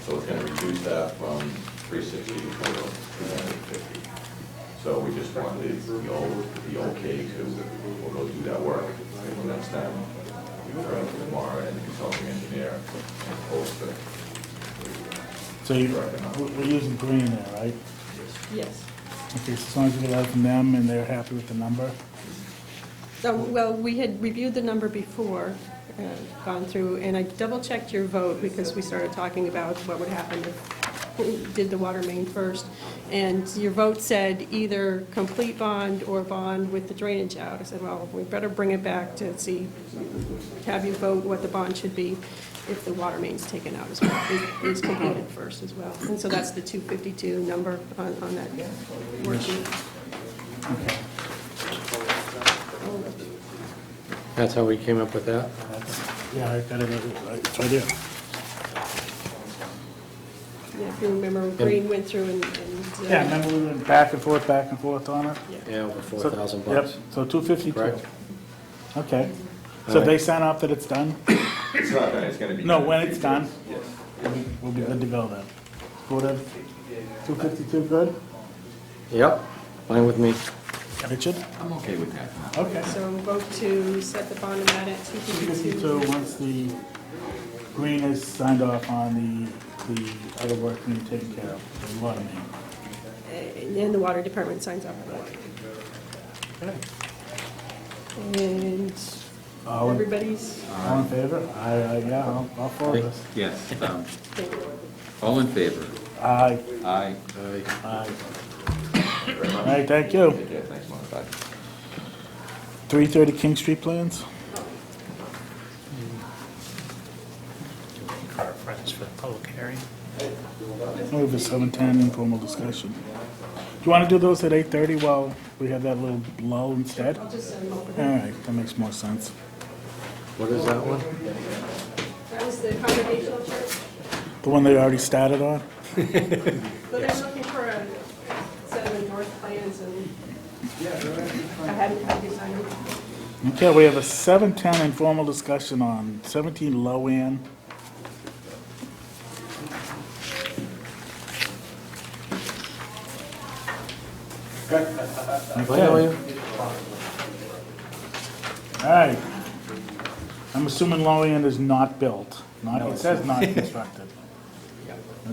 So it's gonna reduce that from three sixty to two hundred fifty. So we just wanted the old, the okay to, we'll go do that work for next time. Right, Tomorrow, and the consulting engineer, and post it. So you, we're we're using green there, right? Yes. Okay, so as long as we get that from them and they're happy with the number, So, well, we had reviewed the number before, uh, gone through, and I double-checked your vote because we started talking about what would happen if we did the water main first. And your vote said either complete bond or bond with the drainage out. I said, well, we better bring it back to see, have you vote what the bond should be if the water main's taken out as well, is- is completed first as well. And so that's the 252 number on on that worksheet. That's how we came up with that? that's, yeah, I got it, right, it's right there. Yeah, if you remember, Green went through and, and. uh, Yeah, remember we went back and forth, back and forth on it? Yeah, over four So- thousand bucks. Yep, so two fifty-two. Correct. Okay. All So right. they sign off that it's done? It's not done, it's gonna be. No, when it's done, Yes. we'll be- we'll be good to go then. Good of, two fifty-two, good? Yep, fine with me. Richard? I'm okay with that. Okay. So vote to set the bond amount at two Fifty-two, fifty-two. once the green is signed off on the, the other work being taken care of, the water main. uh, And then the water department signs off on Okay. it. And All in- everybody's, All in favor? I, I, yeah, I'll, I'll follow this. Yes, um, all in favor? Aye, Aye. Aye. aye. Very much. All right, thank you. Take care, thanks, Mark, bye. Three thirty King Street plans? Car friends for the public hearing. Over seven ten, informal discussion. Do you want to do those at eight thirty while we have that little lull instead? I'll All just send them over. right, that makes more sense. What is that one? That was the congregational church, The one they already started on? but they're looking for a set of north plans and I hadn't had these on. Okay, we have a seven ten informal discussion on seventeen Lowen. Fine, how are you? All right. I'm assuming low end is not built, not, it says not constructed.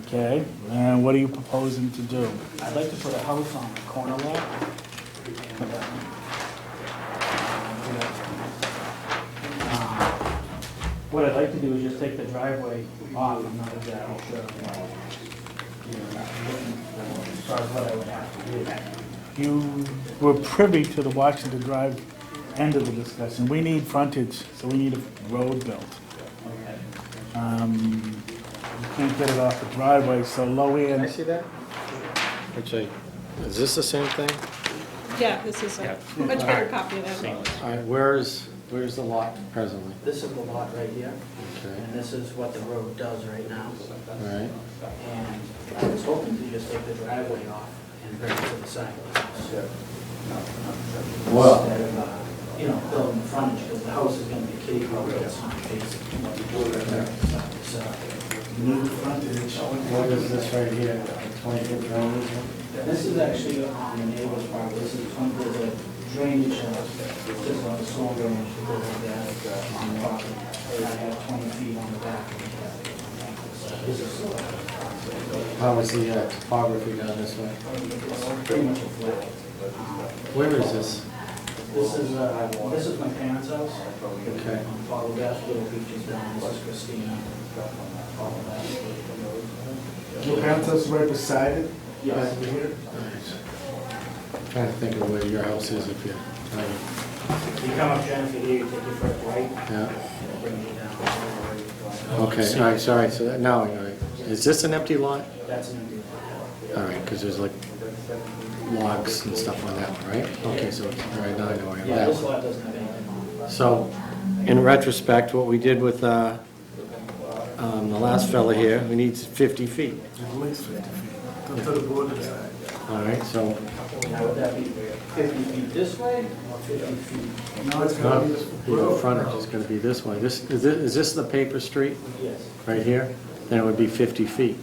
Okay, and what are you proposing to do? I'd like to put a house on the corner lot. And, uh, uh, What I'd like to do is just take the driveway off, I'm not exactly sure. uh, you know, As far as what I would have to do. You were privy to the Washington Drive end of the discussion. We need frontage, so we need a road built. Okay. Um, You can't get it off the driveway, so low Can I end, see that? Which I, is this the same thing? Yeah, this is a much better copy of that. All right, where is, where's the lot presently? This is the lot right here, Okay, and this is what the road does right now. all right. And I was hoping to just take the driveway off and bring it to the side of the house. Well- Instead of, uh, you know, building the frontage, because the house is gonna be kitty corner, it's not facing what you do right there. So, New frontage, what is this right here, twenty-foot road? This is actually on the neighbor's property, this is from the drainage, uh, just on the soil drainage, that goes like that, uh, on the property. And I have twenty feet on the back. So This is uh, How was the uh, topography down this way? pretty much a flat. Uh, Where is this? This is, uh, this is my parents' house. Okay. Um, Follow Baskin Beach is down, this is Christina. Follow Baskin. Your parents' house is right beside it? Yes. Right here? Trying to think of where your house is if you're, trying to- You come up Jennifer here, you take your first right, yeah. and bring you down. Okay, all right, sorry, so that, now, all right. Is this an empty lot? That's an empty lot. All right, because there's like logs and stuff on that one, right? Okay, so, all right, now I know where Yeah, that this one. lot doesn't have anything on it. So, in retrospect, what we did with, uh, um, the last fella here, we need fifty feet. At least fifty feet. Go to the border side. All right, so, Now, would that be fifty feet this way or fifty feet? Now it's not, gonna be this the road. frontage is gonna be this way. This, is this, is this the paper street Yes. right here? Then it would be fifty feet.